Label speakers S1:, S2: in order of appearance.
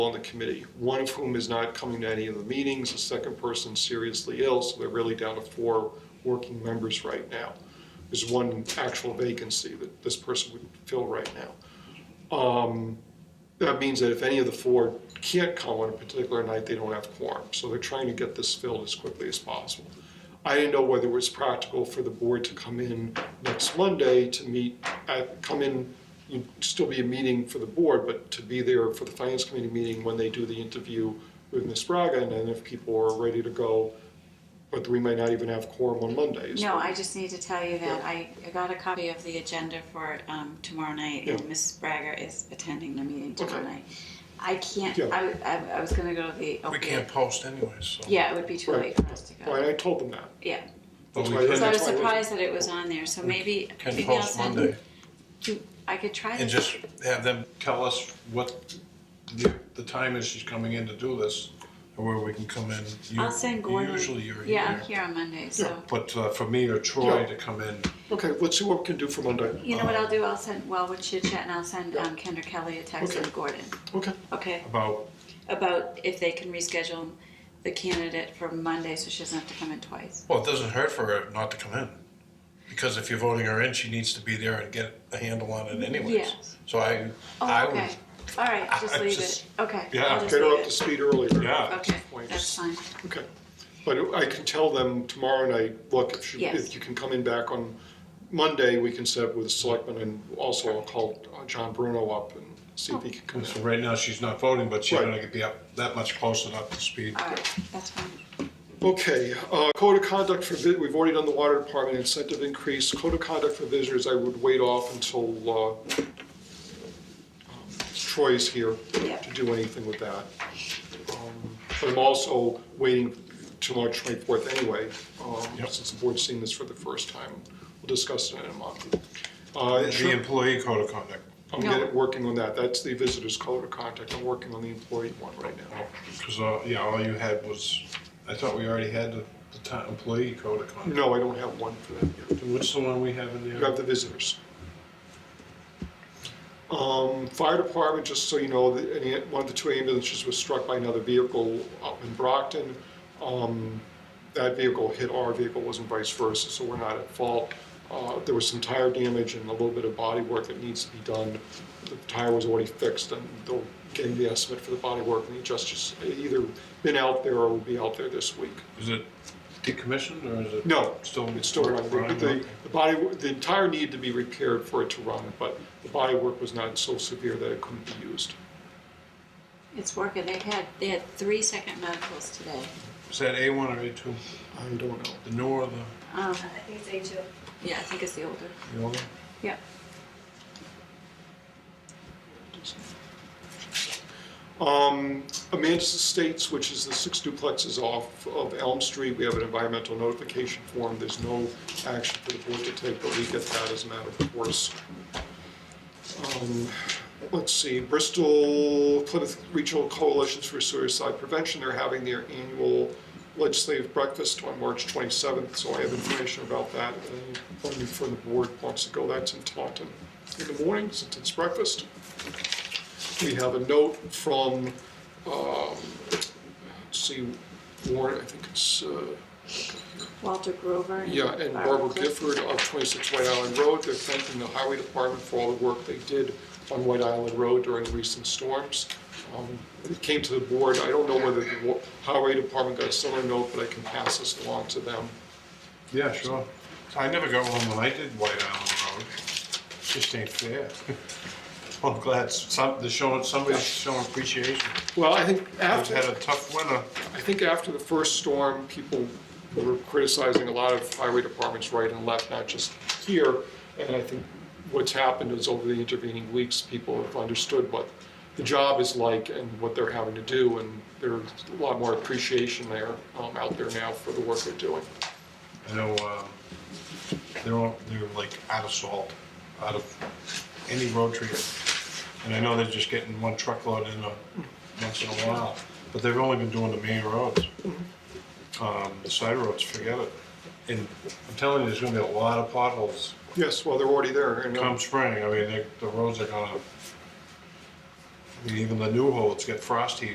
S1: on the committee, one of whom is not coming to any of the meetings, the second person seriously ill, so they're really down to four working members right now. There's one actual vacancy that this person would fill right now. Um, That means that if any of the four can't come on a particular night, they don't have quorum, so they're trying to get this filled as quickly as possible. I didn't know whether it was practical for the board to come in next Monday to meet, at- come in, you'd still be a meeting for the board, but to be there for the finance committee meeting when they do the interview with Ms. Braga, and then if people are ready to go, but we might not even have quorum on Mondays.
S2: No, I just need to tell you that I I got a copy of the agenda for um, tomorrow night, and
S1: Yeah.
S2: Mrs. Braga is attending the meeting tomorrow
S1: Okay.
S2: night. I can't,
S1: Yeah.
S2: I, I- I was gonna go to the.
S3: We
S2: opiate-
S3: can't post anyways, so.
S2: Yeah, it would be too
S1: Right.
S2: late for us to go.
S1: Well, I told them that.
S2: Yeah,
S3: But
S1: That's
S3: we
S1: why-
S2: so I
S3: can,
S2: was
S1: that's why I
S2: surprised that it was on there, so maybe,
S3: can
S2: maybe I'll
S3: post Monday
S2: send. do- I could try
S3: and
S2: this.
S3: just have them tell us what the, the time is she's coming in to do this, or where we can come in. You-
S2: I'll send Gordon.
S3: Usually you're
S2: Yeah, I'm
S3: here.
S2: here on Monday, so.
S3: But uh, for me or Troy
S1: Yeah.
S3: to come in,
S1: Okay, let's see what we can do for Monday.
S2: You know what I'll do? I'll send, well, we'll chit chat and I'll send
S1: Yeah.
S2: um, Kendra Kelly a text
S1: Okay.
S2: and Gordon,
S1: Okay,
S2: okay?
S3: about,
S2: About if they can reschedule the candidate for Monday so she doesn't have to come in twice.
S3: well, it doesn't hurt for her not to come in. Because if you're voting her in, she needs to be there and get a handle on it anyways.
S2: Yes.
S3: So I, I
S2: Oh,
S3: would,
S2: okay. All right,
S3: I-
S2: just
S3: I
S2: leave it.
S3: just-
S2: Okay.
S3: Yeah,
S2: I'll just
S1: get her
S2: leave
S1: up to
S2: it.
S1: speed earlier.
S3: yeah.
S2: Okay,
S1: point.
S2: that's fine.
S1: Okay, but I can tell them tomorrow night, look, if you,
S2: Yes.
S1: if you can come in back on Monday, we can set up with the selectmen, and also I'll call uh, John Bruno up and see if he can come
S3: So
S1: in.
S3: right now, she's not voting, but she's
S1: Right.
S3: gonna be up that much closer up to speed.
S2: All right, that's fine.
S1: Okay, uh, code of conduct for, vi- we've already done the water department incentive increase, code of conduct for visitors, I would wait off until uh, um, Troy's here
S2: Yeah.
S1: to do anything with that. Um, But I'm also waiting till March 24th anyway, um,
S3: Yep.
S1: since the board's seen this for the first time. We'll discuss it in a month. Uh,
S3: The
S1: insur-
S3: employee code of conduct.
S1: I'm
S2: No.
S1: getting, working on that, that's the visitors code of conduct, I'm working on the employee one right now.
S3: Because, uh, yeah, all you had was, I thought we already had the the ti- employee code of conduct.
S1: No, I don't have one for that yet.
S3: What's the one we have in
S1: You have
S3: there?
S1: the visitors. Um, fire department, just so you know, the, any, one of the two ambulances was struck by another vehicle up in Brockton. Um, that vehicle hit our vehicle, wasn't vice versa, so we're not at fault. Uh, there was some tire damage and a little bit of body work that needs to be done. The tire was already fixed and they'll getting the estimate for the body work and the adjusters, either been out there or will be out there this week.
S3: Is it decommissioned or is it?
S1: No,
S3: Still.
S1: it's still running. The- The, the body, the entire need to be repaired for it to run, but the body work was not so severe that it couldn't be used.
S2: It's working. They had, they had three second medicals today.
S3: Is that A one or A two?
S1: I don't know.
S3: The new or the,
S2: Um,
S4: I think it's A two.
S2: yeah, I think it's the older.
S3: the older?
S2: Yeah.
S1: Um, Amanda's Estates, which is the six duplexes off of Elm Street, we have an environmental notification form. There's no action for the board to take, but we get that as a matter of course. Um, Let's see, Bristol Plymouth Regional Coalitions for Suicide Prevention, they're having their annual legislative breakfast on March 27th, so I have information about that. And Anyone from the board wants to go, that's in Taunton in the morning, since it's breakfast. We have a note from, um, let's see, Warren, I think it's, uh,
S2: Walter Grover.
S1: yeah, and Barbara
S2: Clifton.
S1: Gifford of 26 White Island Road, they're thanking the highway department for all the work they did on White Island Road during recent storms. Um, It came to the board, I don't know whether the wa- highway department got a similar note, but I can pass this along to them.
S3: Yeah, sure. I never got one when I did White Island Road. Just ain't fair. Well, I'm glad some, they're showing, somebody's showing appreciation.
S1: Well, I think
S3: We've
S1: after.
S3: had a tough winter.
S1: I think after the first storm, people were criticizing a lot of highway departments right and left, not just here. And I think what's happened is over the intervening weeks, people have understood what the job is like and what they're having to do. And there's a lot more appreciation there, um, out there now for the work they're doing.
S3: I know um, they're all, they're like out of salt, out of any road treatment, and I know they're just getting one truckload in a, once in a while, but they've only been doing the main roads. Um, the side roads, forget it. And I'm telling you, there's gonna be a lot of potholes
S1: Yes, well, they're already there. and, um,
S3: come spring. I mean, they, the roads are gonna. I mean, even the new holds get frosty